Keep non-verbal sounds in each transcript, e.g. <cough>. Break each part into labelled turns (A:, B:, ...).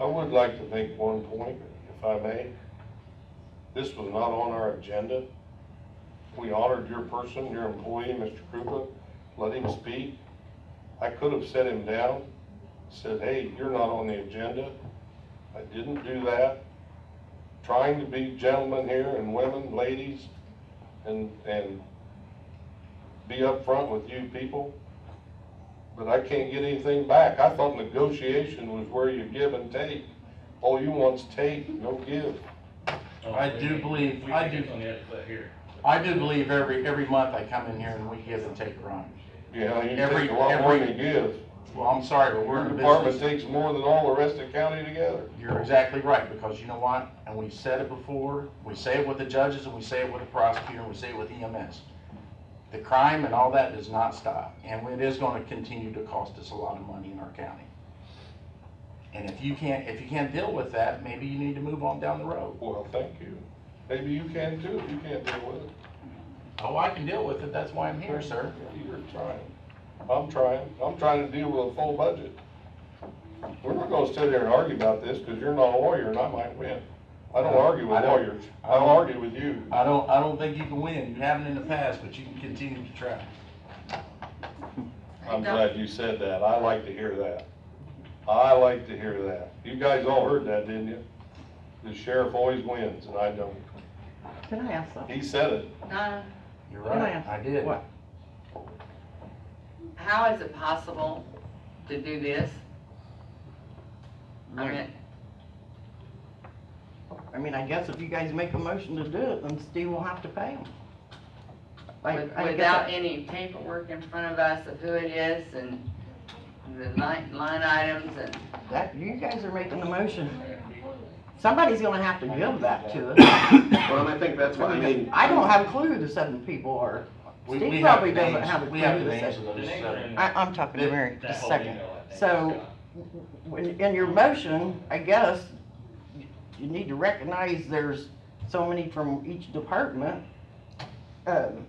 A: I would like to make one point, if I may. This was not on our agenda. We honored your person, your employee, Mr. Krupa, let him speak. I could have set him down, said, hey, you're not on the agenda. I didn't do that. Trying to be gentlemen here and women, ladies, and, and be upfront with you people. But I can't get anything back. I thought negotiation was where you give and take. All you want's take, no give.
B: I do believe-
C: We
B: I
C: think
B: do-
C: it's on the other foot here.
B: I do believe every, every month I come in here and we give and take runs.
A: You know, you
B: Every-
A: take a lot more than you
B: every-
A: give.
B: Well, I'm sorry, but we're
A: Your
B: in
A: department
B: business.
A: takes more than all the rest of the county together.
B: You're exactly right, because you know what? And we've said it before, we say it with the judges and we say it with the prosecutor and we say it with EMS. The crime and all that does not stop, and it is gonna continue to cost us a lot of money in our county. And if you can't, if you can't deal with that, maybe you need to move on down the road.
A: Well, thank you. Maybe you can too, if you can't deal with it.
B: Oh, I can deal with it, that's why I'm here, sir.
A: You're trying. I'm trying. I'm trying to deal with a full budget. We're not gonna sit here and argue about this, because you're not a lawyer and I might win. I don't argue with
B: I don't-
A: lawyers. I don't argue with you.
B: I don't, I don't think you can win, you haven't in the past, but you can continue to try.
A: I'm glad you said that. I like to hear that. I like to hear that. You guys all heard that, didn't you? The sheriff always wins and I don't.
D: Can I ask something?
A: He said it.
E: Uh,
B: You're
D: Can I
B: right,
D: ask-
B: I did.
D: What?
E: How is it possible to do this? I mean,
D: I mean, I guess if you guys make a motion to do it, then Steve will have to pay him.
E: with- without any paperwork in front of us of who it is and the line, line items and,
D: That, you guys are making the motion. Somebody's gonna have to give that to us.
F: Well, and I think that's what I mean.
D: I don't have a clue the seven people are.
B: We-
D: Steve
B: we have
D: probably doesn't
B: names.
D: have a
B: We have
D: clue
B: the
D: to
B: names
D: say.
B: of
C: The
B: those
C: names
B: seven.
C: are in
D: I,
C: that-
D: I'm talking to Mary,
C: that
D: just a
C: whole
D: second.
C: email, I think,
D: So,
C: Scott.
D: in in your motion, I guess, you need to recognize there's so many from each department. um,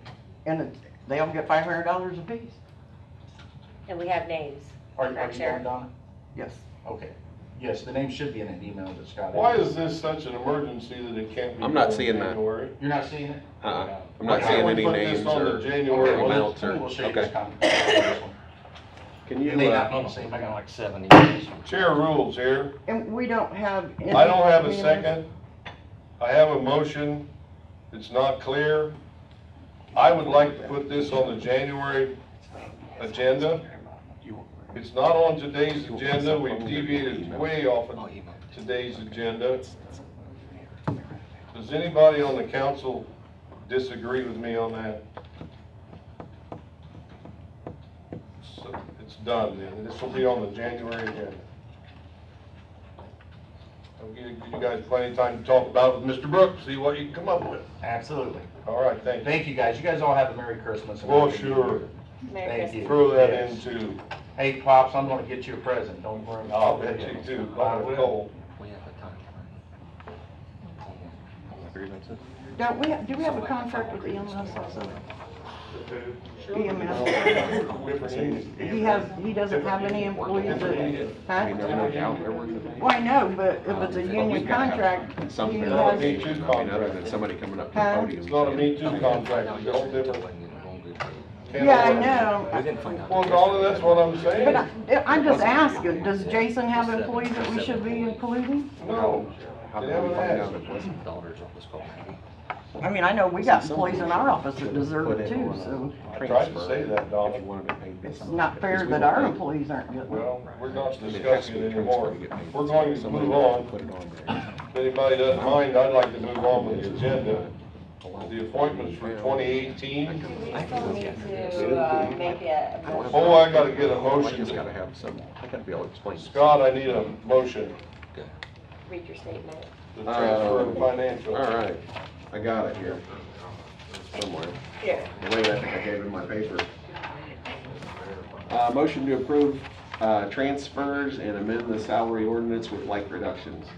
D: And it- they all get five hundred dollars apiece.
G: And we have names.
B: Are you, are
G: Correct,
B: you
G: Sharon?
B: going, Donna?
D: Yes.
B: Okay, yes, the name should be in an email that Scott.
A: Why is this such an emergency that it can't be?
H: I'm not
A: done in
H: seeing that.
A: January?
B: You're not seeing it?
H: Uh-uh. I'm
A: Okay,
H: not seeing
A: we
H: any
A: put this
H: names
A: on the
H: or
A: January list.
H: amounts or,
B: We'll show you this
H: okay.
B: con-
A: <laughs>
B: this one.
H: Can
B: It
H: you,
B: may not
H: uh,
B: be the same, I got like seven
A: Chair rules here.
D: And we don't have. any-
A: I don't have a second. I have a motion. It's not clear. I would like to put this on the January agenda. It's not on today's agenda. We deviated way off of today's agenda. Does anybody on the council disagree with me on that? So It's done then. This will be on the January agenda. I'll give you guys plenty of time to talk about it with Mr. Brooks, see what you can come up with.
B: Absolutely.
A: All right, thank you.
B: Thank you, guys. You guys all have a Merry Christmas. and a
A: Well,
B: Happy New
A: sure.
B: Year.
G: Merry
B: Thank
G: Christmas.
B: you.
A: Throw that in
B: Yes.
A: too.
B: Hey, Pops, I'm gonna get you a present, don't worry. about
A: I'll
B: it.
A: bet you too,
B: I
A: by the
B: will.
A: cold.
H: grievances?
D: Don't we, do we have a contract with EMS also? EMS. He has, he doesn't have any employees that,
H: I mean, they're
D: huh?
H: working out, they're working.
D: Well, I know, but if it's a
H: But
D: union
H: we've gotta have
D: contract,
H: Some
D: he
H: kind
A: No,
H: of
A: me
D: has,
A: too
H: engagement, I mean, other
A: contract.
H: than somebody coming up to the
D: Huh?
H: podium.
A: It's not a me too
H: saying-
A: contract, it's a whole different. can
D: yeah, I
A: of worms.
D: know.
A: Well, Donna, that's what I'm
D: But
A: saying.
D: I, I'm just asking, does Jason have employees that we should be including?
A: No,
H: How
A: they
H: can we
A: haven't
H: find out
A: asked.
H: if it wasn't?
D: I mean, I know we got employees in our office that deserve it too, so
A: I tried to say that, Donna.
H: If you wanted to pay
D: it's
H: something.
D: not fair
H: Because we
D: that
H: won't
D: our
H: pay-
D: employees aren't getting it.
A: Well, we're not
H: I mean, it has to
A: discussing
H: be
A: it
H: a transfer
A: anymore.
H: to get paid.
A: We're going to
H: Somebody
A: move
H: has to
A: on.
H: Put it on there.
A: If anybody doesn't mind, I'd like to move on with the agenda. The appointments for twenty eighteen.
G: Do we still need to, uh, make a, a motion?
A: Oh, I gotta get a
H: I
A: motion.
H: just gotta have some, I gotta be able to explain. this.
A: Scott, I need a motion
G: read your statement?
A: to transfer of
H: All
A: financial.
H: right, I got it here, somewhere.
G: Here.
H: The way I think I gave it in my paper. Uh, motion to approve, uh, transfers and amend the salary ordinance with like reductions.